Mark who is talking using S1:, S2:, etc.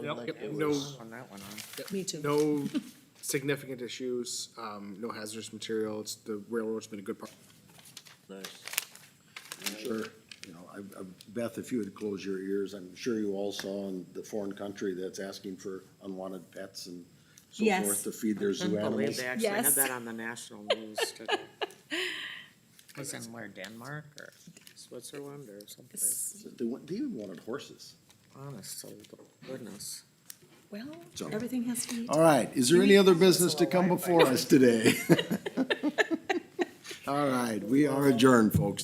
S1: Yep.
S2: like
S3: Yep.
S2: it
S1: No.
S2: was on that one, huh?
S3: Me too.
S1: No significant issues, um, no hazardous material. It's, the railroad's been a good part.
S4: Nice.
S5: Sure, you know, I, I, Beth, if you would close your ears, I'm sure you all saw in the foreign country that's asking for unwanted pets and so
S3: Yes.
S5: forth to feed their zoo
S2: Couldn't believe
S5: animals.
S2: they actually had
S3: Yes.
S2: that on the national news today. Was in where Denmark or Switzerland or someplace.
S5: They want, they even wanted horses.
S2: Honest soul to goodness.
S3: Well,
S5: So-
S3: everything has to be.
S5: All right, is there any other business to come before us today? All right, we are adjourned, folks.